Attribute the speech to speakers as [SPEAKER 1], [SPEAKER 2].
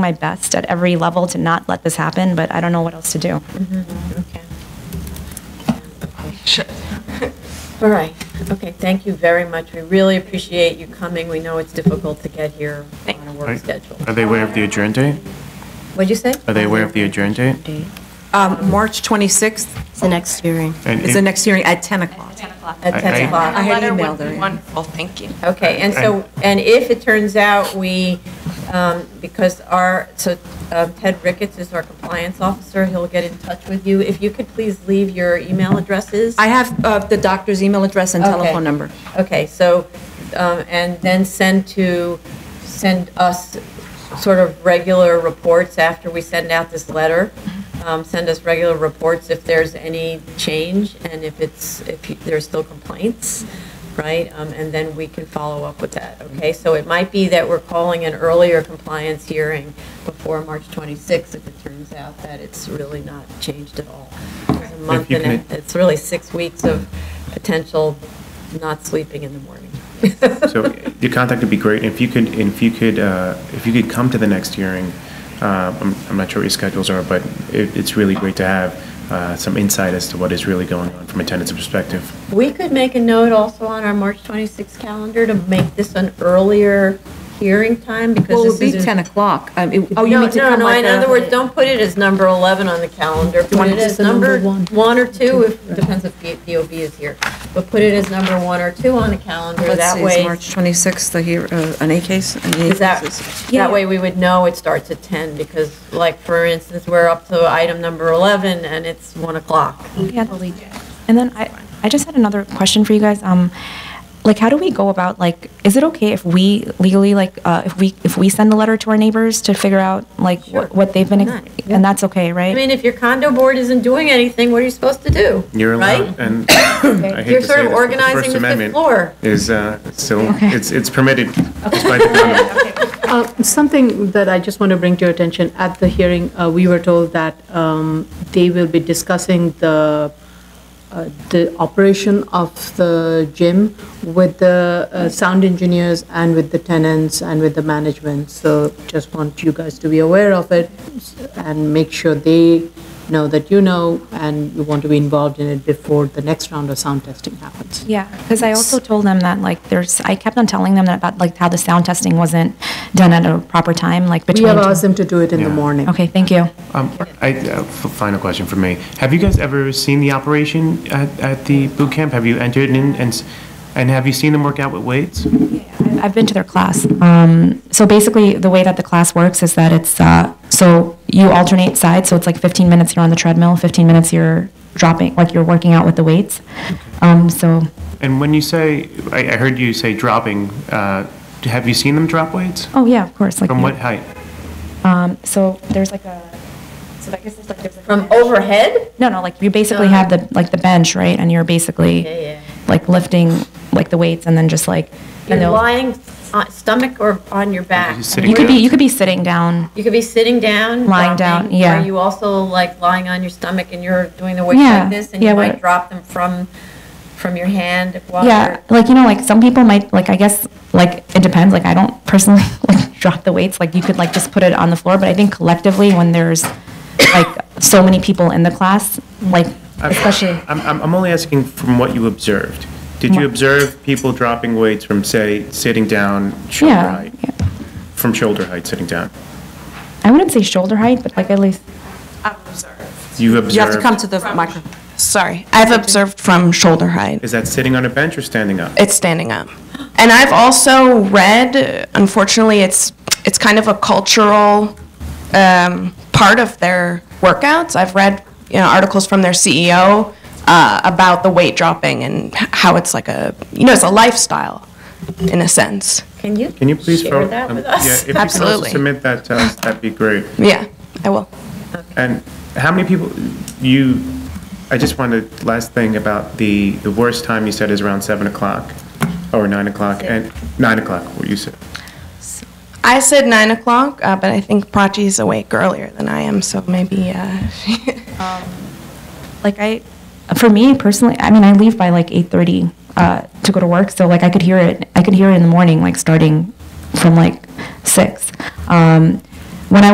[SPEAKER 1] my best at every level to not let this happen, but I don't know what else to do.
[SPEAKER 2] Okay. All right, okay, thank you very much. We really appreciate you coming. We know it's difficult to get here on a work schedule.
[SPEAKER 3] Are they aware of the adjourn date?
[SPEAKER 2] What'd you say?
[SPEAKER 3] Are they aware of the adjourn date?
[SPEAKER 4] Um, March 26th
[SPEAKER 5] It's the next hearing.
[SPEAKER 3] And
[SPEAKER 4] is the next hearing at 10 o'clock.
[SPEAKER 2] At
[SPEAKER 3] I- I-
[SPEAKER 2] 10 o'clock.
[SPEAKER 4] I had
[SPEAKER 6] letter
[SPEAKER 4] emailed
[SPEAKER 6] would
[SPEAKER 4] her.
[SPEAKER 6] be wonderful, Oh, thank you.
[SPEAKER 2] Okay, and so, and if it turns out we, um, because our, so um, Ted Ricketts is our compliance officer, he'll get in touch with you. If you could please leave your email addresses.
[SPEAKER 4] I have uh, the doctor's email address and
[SPEAKER 2] Okay.
[SPEAKER 4] telephone number.
[SPEAKER 2] Okay, so, um, and then send to, send us sort of regular reports after we send out this letter. Um, Send us regular reports if there's any change and if it's, if you- there's still complaints, right? Um, And then we can follow up with that, okay? So it might be that we're calling an earlier compliance hearing before March 26th if it turns out that it's really not changed at all. It's a month
[SPEAKER 3] you
[SPEAKER 2] and
[SPEAKER 3] can-
[SPEAKER 2] a- it's really six weeks of potential not sleeping in the morning.
[SPEAKER 3] So your contact would be great. If you could, if you could, uh, if you could come to the next hearing, uh, I'm I'm not sure what your schedules are, but it- it's really great to have uh, some insight as to what is really going on from a tenant's perspective.
[SPEAKER 2] We could make a note also on our March 26th calendar to make this an earlier hearing time because
[SPEAKER 4] Well,
[SPEAKER 2] this
[SPEAKER 4] it would be
[SPEAKER 2] is.
[SPEAKER 4] 10 o'clock. Um, it- Oh, you
[SPEAKER 2] No,
[SPEAKER 4] mean to
[SPEAKER 2] no,
[SPEAKER 4] come
[SPEAKER 2] no,
[SPEAKER 4] like
[SPEAKER 2] in
[SPEAKER 4] a-
[SPEAKER 2] other words, don't put it as number 11 on the calendar. Put
[SPEAKER 4] want
[SPEAKER 2] it
[SPEAKER 4] it
[SPEAKER 2] as
[SPEAKER 4] as a number
[SPEAKER 2] number one or two, if, depends if DOB is here. But put it as number one or two on the calendar.
[SPEAKER 4] Let's
[SPEAKER 2] That
[SPEAKER 4] see, it's
[SPEAKER 2] way,
[SPEAKER 4] March 26th, the hear- uh, an A case? an A
[SPEAKER 2] Is that,
[SPEAKER 4] cases.
[SPEAKER 2] that way we would know it starts at 10 because like, for instance, we're up to item number 11 and it's 1 o'clock.
[SPEAKER 1] Yeah, the lead. And then I, I just had another question for you guys. Um, like, how do we go about like, is it okay if we legally like, uh, if we if we send a letter to our neighbors to figure out like
[SPEAKER 2] Sure.
[SPEAKER 1] what, what they've been,
[SPEAKER 2] Why not?
[SPEAKER 1] and that's okay, right?
[SPEAKER 2] I mean, if your condo board isn't doing anything, what are you supposed to do?
[SPEAKER 3] You're
[SPEAKER 2] Right?
[SPEAKER 3] allowed, and I hate to say
[SPEAKER 2] You're sort of
[SPEAKER 3] this, but
[SPEAKER 2] organizing the
[SPEAKER 3] First
[SPEAKER 2] fifth
[SPEAKER 3] Amendment
[SPEAKER 2] floor.
[SPEAKER 3] Is, uh, still, it's it's permitted despite the condo.
[SPEAKER 7] Uh, Something that I just want to bring to your attention, at the hearing, uh, we were told that um, they will be discussing the, uh, the operation of the gym with the uh, sound engineers and with the tenants and with the management. So just want you guys to be aware of it and make sure they know that you know and you want to be involved in it before the next round of sound testing happens.
[SPEAKER 1] Yeah, because I also told them that like there's, I kept on telling them that about like how the sound testing wasn't done at a proper time, like
[SPEAKER 7] We
[SPEAKER 1] between.
[SPEAKER 7] have asked them to do it in the
[SPEAKER 3] Yeah.
[SPEAKER 7] morning.
[SPEAKER 1] Okay, thank you.
[SPEAKER 3] Um, I, uh, f- final question for me. Have you guys ever seen the operation at, at the boot camp? Have you entered in and, s- and have you seen them work out with weights?
[SPEAKER 1] I've been to their class. Um, so basically, the way that the class works is that it's uh, so you alternate sides. So it's like 15 minutes you're on the treadmill, 15 minutes you're dropping, like you're working out with the weights. Um, so
[SPEAKER 3] And when you say, I, I heard you say dropping, uh, have you seen them drop weights?
[SPEAKER 1] oh yeah, of course. Like
[SPEAKER 3] From what height?
[SPEAKER 1] Um, so there's like a. So I guess it's like there's like a
[SPEAKER 2] From
[SPEAKER 1] bench.
[SPEAKER 2] overhead?
[SPEAKER 1] No, no, like you basically
[SPEAKER 2] No.
[SPEAKER 1] have the like the bench, right? And you're basically
[SPEAKER 2] Yeah, yeah.
[SPEAKER 1] like lifting like the weights and then just like and
[SPEAKER 2] You're
[SPEAKER 1] they'll-
[SPEAKER 2] lying on- stomach or on your back?
[SPEAKER 3] Just sitting
[SPEAKER 1] you could be
[SPEAKER 3] down?
[SPEAKER 1] you could be sitting down.
[SPEAKER 2] You could be sitting down.
[SPEAKER 1] Lying
[SPEAKER 2] dropping.
[SPEAKER 1] down, yeah.
[SPEAKER 2] Are you also like lying on your stomach and you're doing the weights
[SPEAKER 1] Yeah,
[SPEAKER 2] like this? And you
[SPEAKER 1] yeah,
[SPEAKER 2] might
[SPEAKER 1] what-
[SPEAKER 2] drop them from, from your hand while
[SPEAKER 1] Yeah,
[SPEAKER 2] you're.
[SPEAKER 1] like you know, like some people might like I guess like it depends. Like I don't personally like drop the weights. Like you could like just put it on the floor, but I think collectively when there's like so many people in the class, like especially
[SPEAKER 3] I'm, I'm, I'm only asking from what you observed. Did you
[SPEAKER 1] Yeah.
[SPEAKER 3] observe people dropping weights from, say, sitting down shoulder
[SPEAKER 1] yeah,
[SPEAKER 3] height?
[SPEAKER 1] yeah.
[SPEAKER 3] From shoulder height, sitting down?
[SPEAKER 1] I wouldn't say shoulder height, but like at least
[SPEAKER 3] You've observed?
[SPEAKER 4] You have to come to the microphone.
[SPEAKER 6] Sorry, I've observed from shoulder height.
[SPEAKER 3] Is that sitting on a bench or standing up?
[SPEAKER 6] It's standing up. And I've also read, unfortunately, it's, it's kind of a cultural um, part of their workouts. I've read, you know, articles from their CEO uh, about the weight dropping and how it's like a, you know, it's a lifestyle in a sense.
[SPEAKER 2] Can you?
[SPEAKER 3] Can you please?
[SPEAKER 2] Share
[SPEAKER 3] forward-
[SPEAKER 2] that
[SPEAKER 3] um,
[SPEAKER 2] with us?
[SPEAKER 3] Yeah, if you could also
[SPEAKER 6] Absolutely.
[SPEAKER 3] submit that to us, that'd be great.
[SPEAKER 6] Yeah, I will.
[SPEAKER 3] And how many people, you, I just wanted, last thing about the, the worst time you said is around 7 o'clock or 9 o'clock, and 9 o'clock, what you said.
[SPEAKER 6] I said nine o'clock, uh, but I think Prachi's awake earlier than I am, so maybe uh,
[SPEAKER 1] like I, for me personally, I mean, I leave by like eight thirty uh, to go to work, so like I could hear it. I could hear it in the morning, like starting from like six. Um,